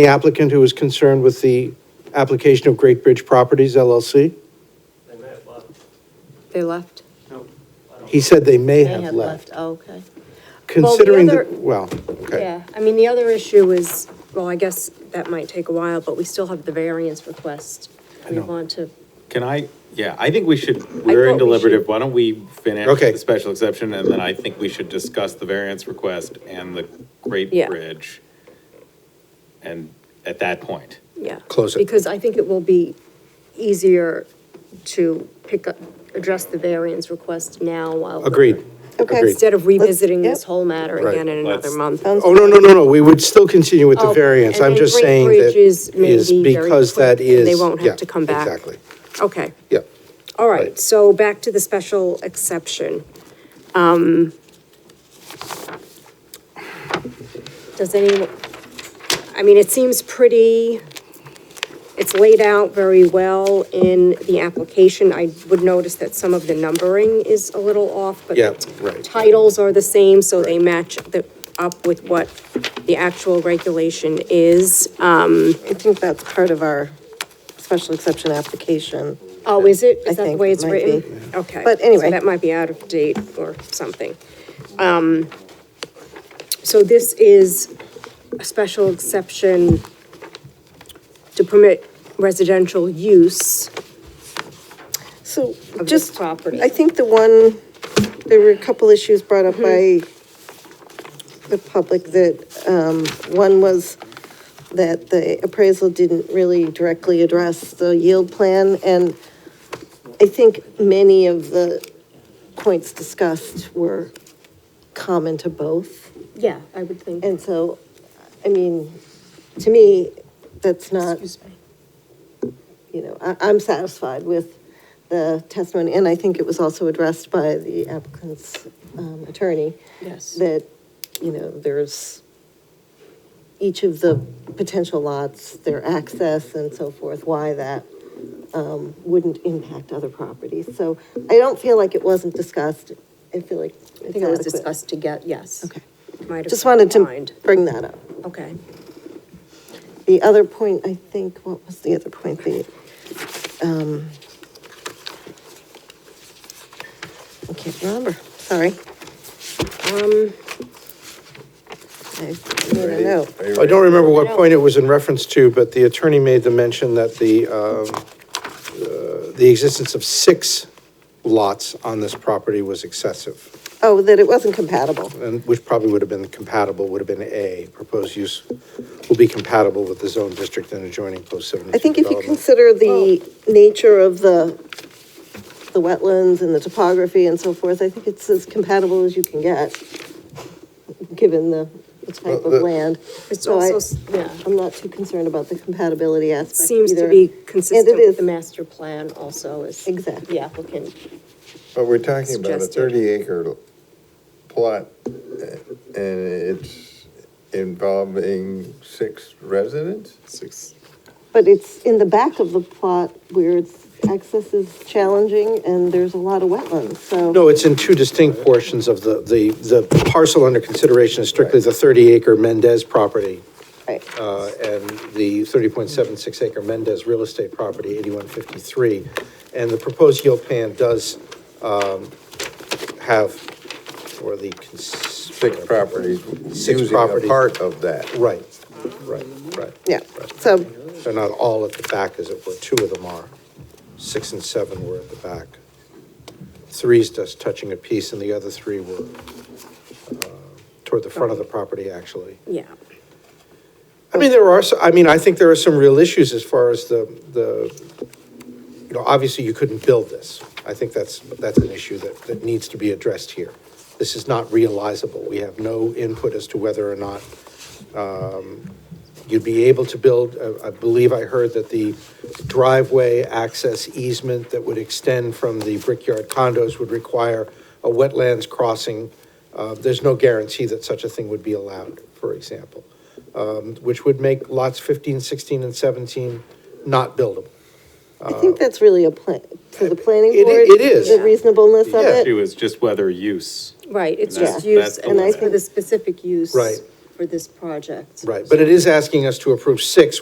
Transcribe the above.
The applicant who is concerned with the application of Great Bridge Properties LLC? They may have left. They left? He said they may They have left. Oh, Okay. Considering, the- other- well, okay. Yeah, I mean, the other issue is, well, I guess that might take a while, but we still have the variance request. We know. want to, Can I, yeah, I think we should, we're in thought we should- deliberative, why don't we finish Okay. the special exception, and then I think we should discuss the variance request and the Great Yeah. Bridge. And at that point, yeah. Close it. Because I think it will be easier to pick up, address the variance request now while. Agreed. Agreed. Instead of revisiting this Yep. whole matter Right. again in another Let's- month. Sounds- Oh, no, no, no, no, we would still continue with the Oh, variance. and I'm then just Great saying that Bridge is may is be very because quick, that and they is- won't have yeah, to come back. Exactly, Okay. yeah. All Right. right, so back to the special exception. Um, Does anyone, I mean, it seems pretty, it's laid out very well in the application. I would notice that some of the numbering is a little off, but Yeah, the t- right. titles are the same, so they Right. match the, up with what the actual regulation is. Uh, I think that's part of our special exception application. Oh, is it? I Is that the think way it it's might written? be. Okay. But anyway. So that might be out of date or something. Um, so this is a special exception to permit residential use. So this just, property. I think the one, there were a couple issues brought up by the public that, um, one was that the appraisal didn't really directly address the yield plan, and I think many of the points discussed were common to both. Yeah, I would think. And so, I mean, to me, that's not, Excuse me. you know, I, I'm satisfied with the testimony, and I think it was also addressed by the applicant's um, attorney, Yes. that, you know, there's each of the potential lots, their access and so forth, why that um, wouldn't impact other properties. So I don't feel like it wasn't discussed. I feel like it's I think it was adequate. discussed to get, yes. Okay. Might have Just wanted declined. to bring that up. Okay. The other point, I think, what was the other point? The, um, I can't remember, sorry. Um, I made a note. I don't remember what point it was in reference to, but the attorney made the mention that the, um, uh, the existence of six lots on this property was excessive. Oh, that it wasn't compatible. and which probably would have been compatible, would have been A, proposed use will be compatible with the zone district and adjoining post I 72 think if you development. consider the nature of the, the wetlands and the topography and so forth, I think it's as compatible as you can get, given the the type Well, the- of land. It's So I- also, s- yeah. I'm not too concerned about the compatibility aspect Seems to either. be And consistent it with is. the master plan also is. Exactly. The applicant. But we're talking about a Suggested. thirty acre plot, eh, and it's involving six residents? six, But it's in the back of the plot where it's, access is challenging and there's a lot of wetlands, so. No, it's in two distinct portions of the, the, the parcel under consideration is strictly the 30 acre Mendez property Right. uh, and the 30.76 acre Mendez real estate property, 8153. And the proposed yield plan does um, have, or the. cons- Six properties Six using a properties. part of that. Right, right, right. Yeah, so, They're not all at the back, as it were, two of them are. Six and seven were at the back. Three's just touching a piece, and the other three were uh, toward the front of the property, actually. Yeah. I mean, there are, so- I mean, I think there are some real issues as far as the, the, you know, obviously you couldn't build this. I think that's, that's an issue that, that needs to be addressed here. This is not realizable. We have no input as to whether or not um, you'd be able to build, uh, I- I believe I heard that the driveway access easement that would extend from the Brickyard condos would require a wetlands crossing. Uh, There's no guarantee that such a thing would be allowed, for example which would make lots 15, 16, and 17 not buildable. I think that's really a plan, for the planning It board. i- it is. The reasonableness of Yeah. it. two is just whether use. Right, it's And just that's- use, that's the and it's limit. for the specific use. Right. for this project. Right, but it is asking us to approve six,